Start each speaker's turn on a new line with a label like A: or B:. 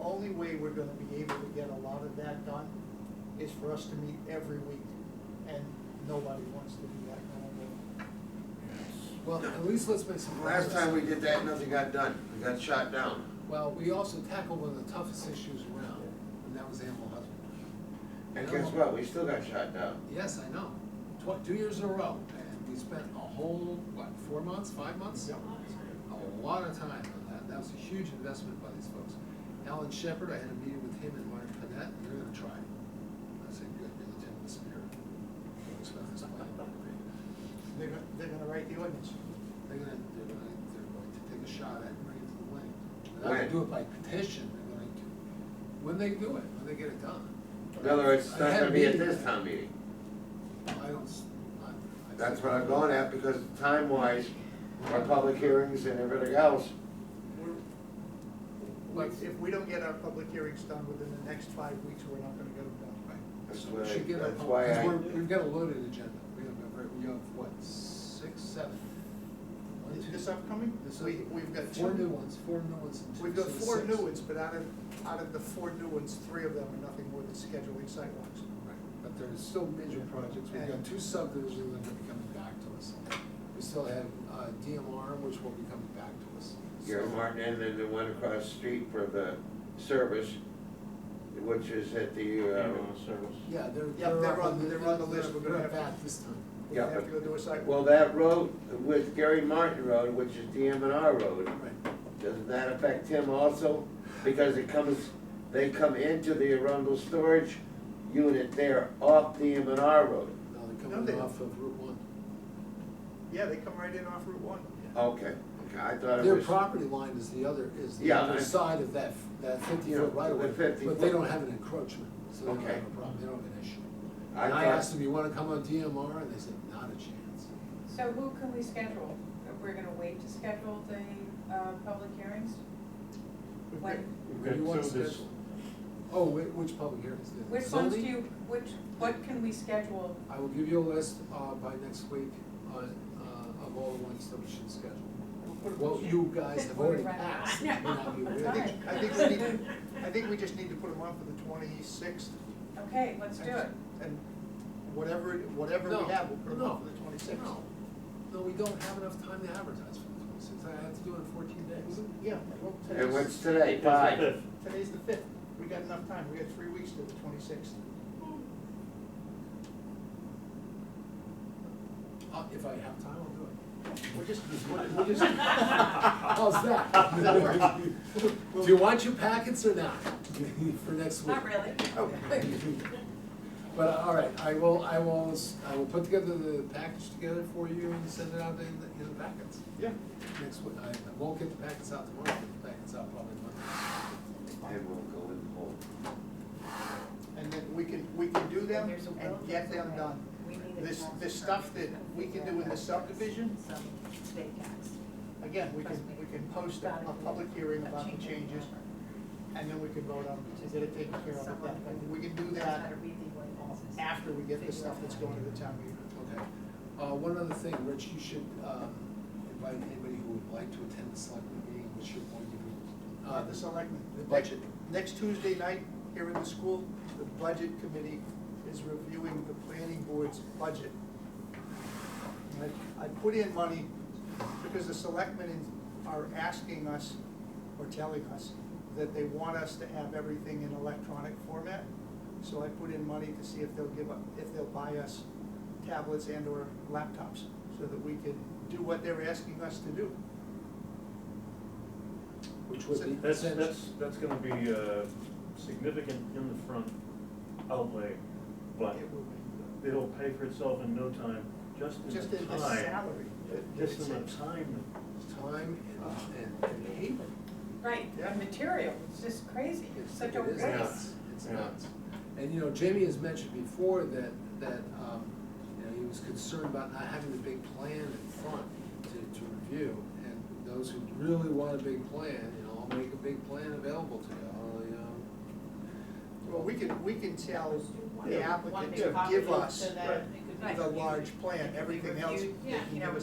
A: only way we're gonna be able to get a lot of that done is for us to meet every week, and nobody wants to do that kind
B: Well, at least let's make some progress.
C: Last time we did that, nothing got done, we got shot down.
B: Well, we also tackled one of the toughest issues around, and that was animal husbandry.
C: And guess what, we still got shot down.
B: Yes, I know, tw- two years in a row, and we spent a whole, what, four months, five months?
A: Yep.
B: A lot of time on that, that was a huge investment by these folks. Alan Shepard, I had a meeting with him and Mark Panett, they're gonna try. it. I said, good, you're the tip of the spear. Folks about this plan.
A: of, they're, gonna- they're gonna write the ordinance.
B: They're gonna, they're gonna, they're going to take a shot at it and bring it to the lake. They're not
C: When?
B: gonna do it by petition, they're gonna, do- when they do it, when they get it done.
C: In other words, it's
B: I
C: not
B: had
C: gonna
B: a
C: be at
B: meeting.
C: this town meeting.
B: I don't, s- I. I-
C: That's what I'm going at, because time-wise, our public hearings and everything else,
A: We're-
B: Like-
A: If we don't get our public hearings done within the next five weeks, we're not gonna get them done.
B: Right.
C: That's
B: So
C: why-
B: we should get our,
C: that's why
B: because
C: I-
B: we're, we've got a loaded agenda, we have, a very- we have, what, six, seven? One, two-
A: This upcoming,
B: this
A: we,
B: up-
A: we've got two.
B: Four new ones, four new ones and two.
A: We've
B: so
A: got four
B: six.
A: new ones, but out of, out of the four new ones, three of them are nothing more than scheduling sidewalks.
B: Right, But there's still major projects, we've got two subdivisions that are gonna be coming back to us. We still have, uh, DMR, which will be coming back to us.
C: Gary
B: So-
C: Martin, and then the one across the street for the service, which is at the, uh,
B: Yeah, they're,
A: Yep,
B: they're
A: they're
B: up
A: on-
B: on the,
A: they're on the list. We're gonna
B: they're
A: have to-
B: back this time.
A: We're
C: Yeah,
A: gonna have
C: but-
A: to go do a sidewalk.
C: well, that road with Gary Martin Road, which is DMNR Road,
B: Right,
C: doesn't that affect him also? Because it comes, they come into the Arundel storage unit there off DMNR Road.
B: now they're
A: No, they
B: coming
A: don't.
B: off of Route one.
A: Yeah, they come right in off Route One.
C: Okay, okay, I thought it
B: Their
C: was.
B: property line is the other, is the
C: Yeah,
B: other
C: I-
B: side of that, that fifty
C: Yeah,
B: foot right away,
C: the 50
B: but they
C: foot.
B: don't have an encroachment, so they don't have
C: Okay.
B: a problem, they don't have an issue.
C: I
B: And I
C: thought-
B: asked them, you wanna come on DMR, and they said, not a chance.
D: So who can we schedule? We're gonna wait to schedule the, uh, public hearings?
A: We've got-
D: When,
B: What do you want scheduled? Oh, whi- which public hearings? The
D: which ones do
B: zoning?
D: you, which, what can we schedule?
B: I will give you a list, uh, by next week, on, uh, of all the ones that we should schedule.
A: we'll put a-
B: Well, you guys have already
D: Right.
B: passed,
D: No.
B: may not be
A: I
B: aware.
A: think, I think we need, I think we just need to put them on for the twenty-sixth.
D: Okay, let's do it.
A: And whatever, whatever
B: No,
A: we have, we'll put them on
B: no,
A: for the twenty-sixth.
B: No, no, we don't have enough time to advertise for the twenty-sixth, I have to do it in fourteen days.
A: Yeah, well,
C: And
A: today's,
C: what's today, five?
A: today's the fifth. We got enough time. We got three weeks to the twenty-sixth.
B: Uh, if I have time, I'll do it.
A: We're just, we're we're just.
B: How's that?
A: Does that work?
B: Do you want your packets or not for next week?
D: Not really.
B: But, uh, all right, I will, I will, s- I will put together the package together for you and send it out in the, in the packets
A: Yeah.
B: next week. I I won't get the packets out tomorrow, but the packets out probably Monday.
C: And we'll go in the hole.
A: And then we can, we can do them
D: There's a will,
A: and get
D: there's a
A: them
D: way.
A: done.
D: We need a
A: This,
D: council
A: this stuff that
D: first.
A: we can do in the subdivision,
D: Some state tax.
A: again, we can, we can post a, a public hearing about the changes, and then we can vote on, it, get it taken care of at that point. We can do that um, after we get the stuff that's going to the town meeting.
B: Okay. Uh, one other thing, Rich, you should, um, invite anybody who would like to attend the selectmen meeting, which you're going to be.
A: Uh, the selectmen.
B: The budget.
A: Next Tuesday night, here in the school, the budget committee is reviewing the planning board's budget. And I, I put in money because the selectmen in- are asking us, or telling us, that they want us to have everything in electronic format. So I put in money to see if they'll give up, if they'll buy us tablets and or laptops, so that we can do what they're asking us to do.
B: Which would be.
E: That's,
B: sent-
E: that's, that's gonna be a significant in the front outlay, but
A: It will be.
E: it'll pay for itself in no time, just
A: Just
E: in
A: in
E: the
A: the
E: time.
A: salary.
E: Just in the time.
B: time and, and, and hate.
D: Right,
A: Yeah.
D: the material, it's just crazy, it's such a
B: It is
D: waste.
B: nuts. It's
E: Yeah.
B: nuts. And, you know, Jamie has mentioned before that, that, um, you know, he was concerned about not having the big plan in front to, to review. And those who really want a big plan, you know, I'll make a big plan available to you, I'll, you know.
A: Well, we can, we can tell the
E: Yeah.
A: applicant to give us
E: that
A: the large plan, everything else,
D: Yeah,
A: they can
D: you know,
A: give us